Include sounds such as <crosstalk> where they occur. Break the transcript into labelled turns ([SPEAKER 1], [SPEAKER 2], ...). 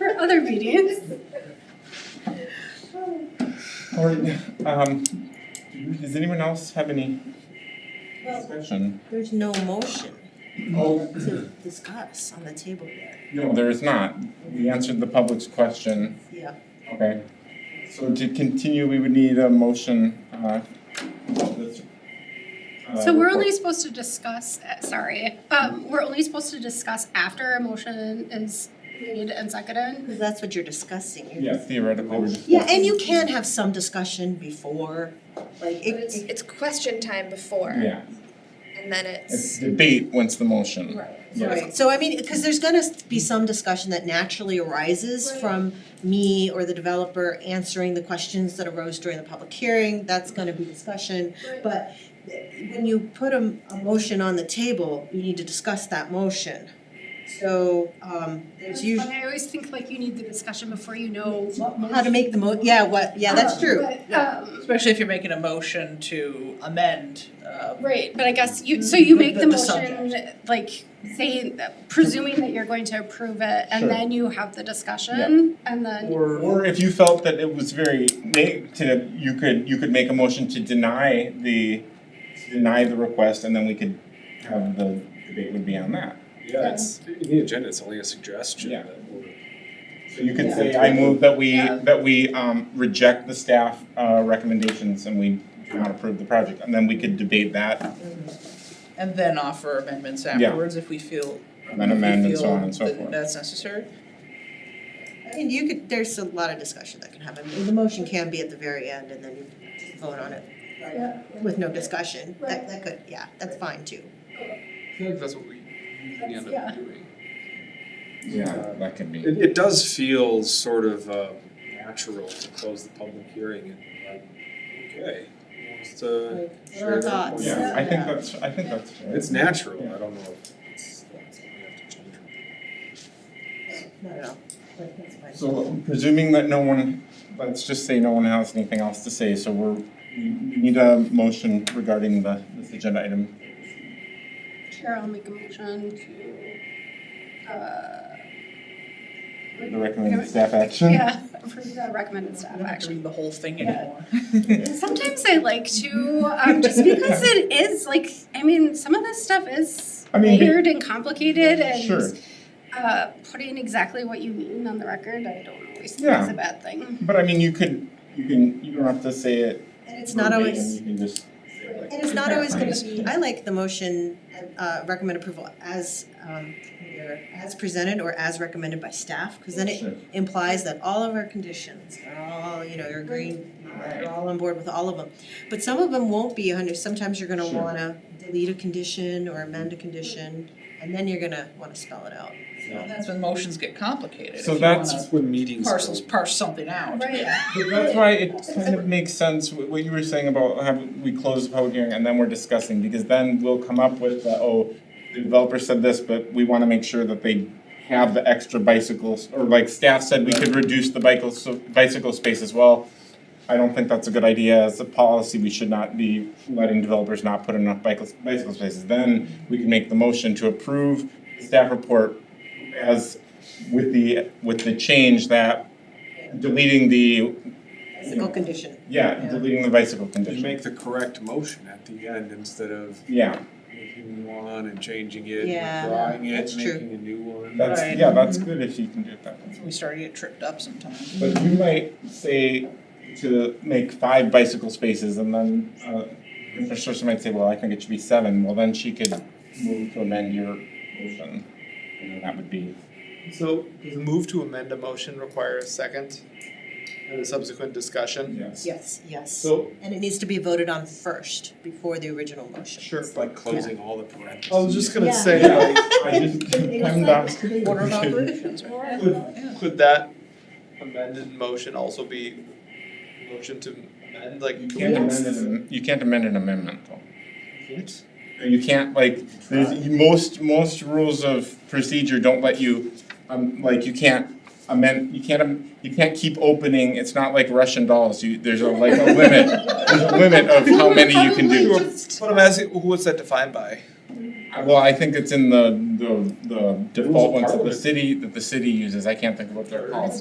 [SPEAKER 1] other meetings.
[SPEAKER 2] All right, um, does anyone else have any discussion?
[SPEAKER 3] There's no motion
[SPEAKER 2] Oh,
[SPEAKER 3] to discuss on the table yet.
[SPEAKER 2] no, there is not. We answered the public's question,
[SPEAKER 3] Yeah.
[SPEAKER 2] okay? So to continue, we would need a motion, uh, of this, uh,
[SPEAKER 1] So we're only
[SPEAKER 2] report.
[SPEAKER 1] supposed to discuss, uh, sorry, um, we're only supposed to discuss after a motion is made and seconded.
[SPEAKER 3] Because that's what you're discussing. You're-
[SPEAKER 2] Yeah, theoretically, we're just.
[SPEAKER 3] Yeah, and you can have some discussion before, like
[SPEAKER 4] But it's
[SPEAKER 3] it,
[SPEAKER 4] it's question time before
[SPEAKER 2] Yeah,
[SPEAKER 4] and then
[SPEAKER 2] it's
[SPEAKER 4] it's
[SPEAKER 2] debate once the motion.
[SPEAKER 4] Right.
[SPEAKER 2] Yeah.
[SPEAKER 3] Right, so I mean, because there's gonna be some discussion that naturally arises
[SPEAKER 4] Right.
[SPEAKER 3] from me or the developer answering the questions that arose during the public hearing, that's gonna be discussion.
[SPEAKER 4] Right.
[SPEAKER 3] But eh, when you put a, a motion on the table, you need to discuss that motion. So, um, there's usually.
[SPEAKER 1] I always think like you need the discussion before you know what motion.
[SPEAKER 3] How to make the mo, yeah, what, yeah, that's true.
[SPEAKER 1] But, um,
[SPEAKER 5] Especially if you're making a motion to amend, uh,
[SPEAKER 1] right, but I guess you, so you make the
[SPEAKER 5] The- the
[SPEAKER 1] motion, like, saying, presuming that you're going to approve it, and
[SPEAKER 2] Sure.
[SPEAKER 1] then you have the discussion, and then,
[SPEAKER 2] Or or if you felt that it was very na- to, you could, you could make a motion to deny the, to deny the request and then we could have the debate would be on that.
[SPEAKER 6] Yeah, it's, in the agenda, it's only a suggestion
[SPEAKER 2] Yeah.
[SPEAKER 6] that we're,
[SPEAKER 2] So you could
[SPEAKER 5] Yeah.
[SPEAKER 2] say, I move that we,
[SPEAKER 5] Yeah.
[SPEAKER 2] that we um reject the staff uh recommendations and we do not approve the project, and then we could debate that,
[SPEAKER 5] and then offer amendments
[SPEAKER 2] Yeah.
[SPEAKER 5] afterwards if we feel,
[SPEAKER 2] and then
[SPEAKER 5] if we
[SPEAKER 2] amend and so
[SPEAKER 5] feel
[SPEAKER 2] on and so
[SPEAKER 5] that
[SPEAKER 2] forth.
[SPEAKER 5] that's necessary.
[SPEAKER 3] I mean, you could, there's a lot of discussion that can happen, the motion can be at the very end and then you vote on it. With no discussion, that, that could, yeah, that's fine too.
[SPEAKER 6] I feel like that's what we usually end
[SPEAKER 1] Yeah.
[SPEAKER 6] up doing.
[SPEAKER 2] Yeah, that could be,
[SPEAKER 6] It, it does feel sort of, uh, natural to close the public hearing and like, okay, wants to share
[SPEAKER 3] Our
[SPEAKER 6] their
[SPEAKER 3] thoughts.
[SPEAKER 6] point.
[SPEAKER 2] yeah, I think that's, I think that's fair.
[SPEAKER 6] It's natural, I don't know if it's, that's something we have to change.
[SPEAKER 3] No, no, no, but that's fine.
[SPEAKER 2] So presuming that no one, let's just say no one has anything else to say, so we're, we we need a motion regarding the, this agenda item.
[SPEAKER 1] Chair, I'll make a motion to, uh,
[SPEAKER 2] The recommended staff action.
[SPEAKER 1] yeah, approve the recommended staff
[SPEAKER 5] We don't have to
[SPEAKER 1] action.
[SPEAKER 5] read the whole thing
[SPEAKER 1] Yeah.
[SPEAKER 5] anymore.
[SPEAKER 1] Sometimes I like to, um, just because it is like, I mean, some of this stuff is
[SPEAKER 2] I mean, be-
[SPEAKER 1] layered and complicated and
[SPEAKER 2] <laughs> Sure,
[SPEAKER 1] uh, putting exactly what you mean on the record, I don't always think
[SPEAKER 2] Yeah.
[SPEAKER 1] is a bad thing.
[SPEAKER 2] but I mean, you could, you can, you don't have to say it
[SPEAKER 3] And it's not
[SPEAKER 2] verbatim,
[SPEAKER 3] always,
[SPEAKER 2] you can just say like.
[SPEAKER 3] and it's not always gonna be, I like the motion, uh, recommend approval as, um, either as presented or as recommended by staff, cause then it
[SPEAKER 2] Sure.
[SPEAKER 3] implies that all of our conditions are all, you know, you're agreeing, you're all on board with all of them. But some of them won't be a hundred, sometimes you're gonna
[SPEAKER 2] Sure.
[SPEAKER 3] wanna delete a condition or amend a condition, and then you're gonna wanna spell it out.
[SPEAKER 2] Yeah.
[SPEAKER 5] <laughs> That's when motions get complicated, if
[SPEAKER 2] So
[SPEAKER 5] you
[SPEAKER 2] that's-
[SPEAKER 5] wanna
[SPEAKER 6] when meetings.
[SPEAKER 5] parcels, parse something out.
[SPEAKER 1] Right.
[SPEAKER 2] But that's why it kind of makes sense, wh- what you were saying about have, we close the public hearing and then we're discussing, because then we'll come up with, the, oh, the developer said this, but we wanna make sure that they have the extra bicycles, or like staff said, we could reduce the bicycle, so bicycle space as well. I don't think that's a good idea, as a policy, we should not be letting developers not put enough bicycle, bicycle spaces. Then we can make the motion to approve the staff report as, with the, with the change that deleting the
[SPEAKER 3] Physical condition.
[SPEAKER 2] yeah, deleting the bicycle
[SPEAKER 6] You
[SPEAKER 2] condition.
[SPEAKER 6] make the correct motion at the end instead of
[SPEAKER 2] Yeah,
[SPEAKER 6] making one and changing it,
[SPEAKER 3] Yeah,
[SPEAKER 6] withdrawing it,
[SPEAKER 3] that's true.
[SPEAKER 6] making a new one.
[SPEAKER 2] that's,
[SPEAKER 5] Right.
[SPEAKER 2] yeah, that's good if you can do it that way.
[SPEAKER 5] We start to get tripped up sometimes.
[SPEAKER 2] But you might say to make five bicycle spaces and then, uh, infrastructure might say, well, I think it should be seven, well, then she could move to amend your motion. And then that would be,
[SPEAKER 7] So does the move to amend a motion require a second and a subsequent discussion?
[SPEAKER 2] yes.
[SPEAKER 3] Yes, yes.
[SPEAKER 7] So,
[SPEAKER 3] And it needs to be voted on first, before the original motion.
[SPEAKER 7] sure,
[SPEAKER 6] It's like closing all the parentheses.
[SPEAKER 2] Oh,
[SPEAKER 7] I was just gonna
[SPEAKER 3] Yeah.
[SPEAKER 7] say,
[SPEAKER 2] Yeah,
[SPEAKER 7] like,
[SPEAKER 2] I just, I'm not. <laughs>
[SPEAKER 5] Order of operations, right?
[SPEAKER 7] could, could that amended motion also be motion to amend, like?
[SPEAKER 2] You can't amend an, you can't amend an amendment though.
[SPEAKER 7] Can't?
[SPEAKER 2] You can't like, there's, most, most rules of procedure don't let you, um, like, you can't amend, you can't, am- you can't keep opening, it's not like Russian dolls, you, there's a, like, a limit, there's a limit of how many you can do.
[SPEAKER 1] Probably just-
[SPEAKER 7] But I'm asking, who was that defined by?
[SPEAKER 2] Well, I think it's in the, the, the
[SPEAKER 6] Rules
[SPEAKER 2] default
[SPEAKER 6] of
[SPEAKER 2] ones that the
[SPEAKER 6] Parliament.
[SPEAKER 2] city, that the city uses, I can't think of what they're called.